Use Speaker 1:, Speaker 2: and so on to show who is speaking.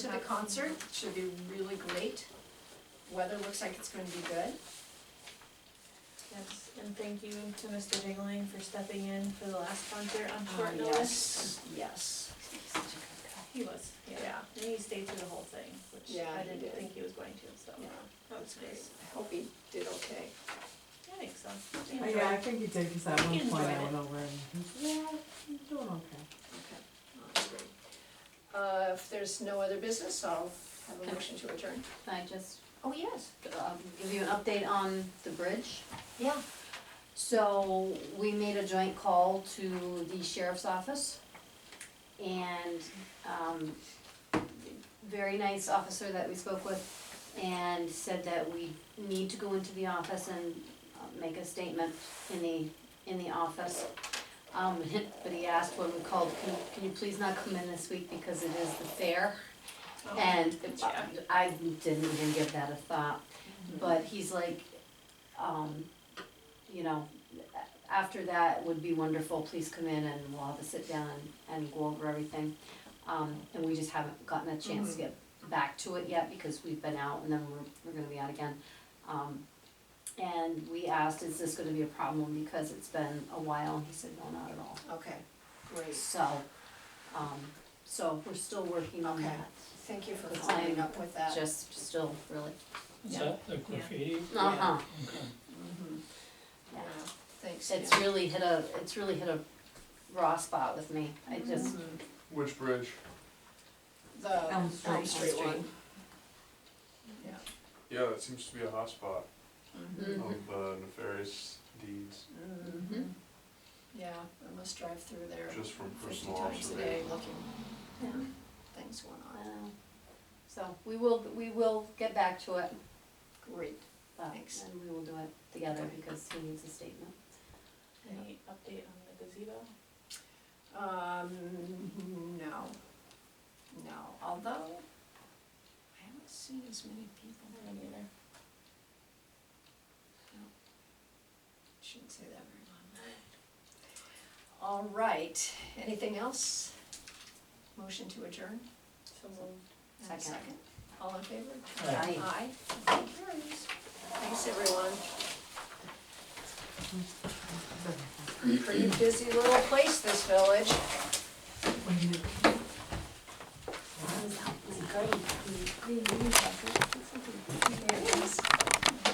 Speaker 1: to the concert, should be really great. Weather looks like it's going to be good.
Speaker 2: Yes, and thank you to Mr. Jingling for stepping in for the last concert on
Speaker 1: Uh,
Speaker 2: short notice.
Speaker 1: Yes,
Speaker 2: He was, yeah,
Speaker 1: Yeah.
Speaker 2: and he stayed through the whole thing, which
Speaker 1: Yeah,
Speaker 2: I
Speaker 1: he
Speaker 2: didn't
Speaker 1: did.
Speaker 2: think he was going to, so,
Speaker 1: yeah,
Speaker 2: that was great.
Speaker 1: I hope he did okay.
Speaker 2: I think so.
Speaker 1: Yeah.
Speaker 2: Anyway,
Speaker 3: Oh, Yeah, I think he did, because at one
Speaker 2: He
Speaker 3: point I
Speaker 2: enjoyed
Speaker 3: went over and he's, yeah, he's doing okay.
Speaker 1: Okay, well, that's great. Uh, if there's no other business, I'll have a motion to adjourn.
Speaker 4: Can I just
Speaker 1: Oh, yes.
Speaker 4: um, give you an update on the bridge?
Speaker 1: Yeah.
Speaker 4: So we made a joint call to the sheriff's office and um, very nice officer that we spoke with and said that we need to go into the office and uh, make a statement in the, in the office. Um, But he asked when we called, can can you please not come in this week because it is the fair?
Speaker 2: oh,
Speaker 4: And
Speaker 2: good job.
Speaker 4: I didn't even give that a thought,
Speaker 1: Mm-hmm.
Speaker 4: but he's like, um, you know, after that would be wonderful, please come in and we'll have a sit down and, and go over everything. Um, and we just haven't gotten a chance to get back to it yet because we've been out and then we're, we're gonna be out again. Um, and we asked, is this gonna be a problem because it's been a while, and he said, no, not at all.
Speaker 1: Okay, great.
Speaker 4: So, um, so we're still working on
Speaker 1: Okay.
Speaker 4: that,
Speaker 1: Thank you for following up with that.
Speaker 4: just still really
Speaker 5: Is
Speaker 2: Yeah.
Speaker 5: that the graffiti?
Speaker 4: Uh-huh,
Speaker 1: Mhm.
Speaker 4: yeah.
Speaker 1: Yeah, Thanks.
Speaker 4: It's
Speaker 1: yeah.
Speaker 4: really hit a, it's really hit a raw spot with me. I just,
Speaker 1: Mhm.
Speaker 6: Which bridge?
Speaker 1: The
Speaker 3: Elm
Speaker 1: Elm
Speaker 3: Street.
Speaker 1: Street one. Yeah.
Speaker 6: Yeah, that seems to be a hotspot
Speaker 1: Mhm.
Speaker 4: mm,
Speaker 6: of uh, nefarious deeds,
Speaker 1: Mhm. Yeah, I must drive through there
Speaker 6: just from
Speaker 1: fifty
Speaker 6: personal
Speaker 1: times a day
Speaker 6: observation.
Speaker 1: looking,
Speaker 4: yeah,
Speaker 1: things going
Speaker 4: I
Speaker 1: on.
Speaker 4: know. So we will, we will get back to it,
Speaker 1: Great.
Speaker 4: but,
Speaker 1: Thanks.
Speaker 4: and we will do it together because he needs a statement.
Speaker 2: Any update on the gazebo?
Speaker 1: Um, no, no, although I haven't seen as many people.
Speaker 2: I don't either.
Speaker 1: Shouldn't say that very loud. All right, anything else? Motion to adjourn?
Speaker 2: So we'll
Speaker 1: And a
Speaker 4: Second.
Speaker 1: Second. All in favor?
Speaker 5: Aye.
Speaker 4: Aye.
Speaker 1: Aye. Motion carries. Thanks, everyone. Pretty busy little place, this village.
Speaker 4: Green, green, green, green, green.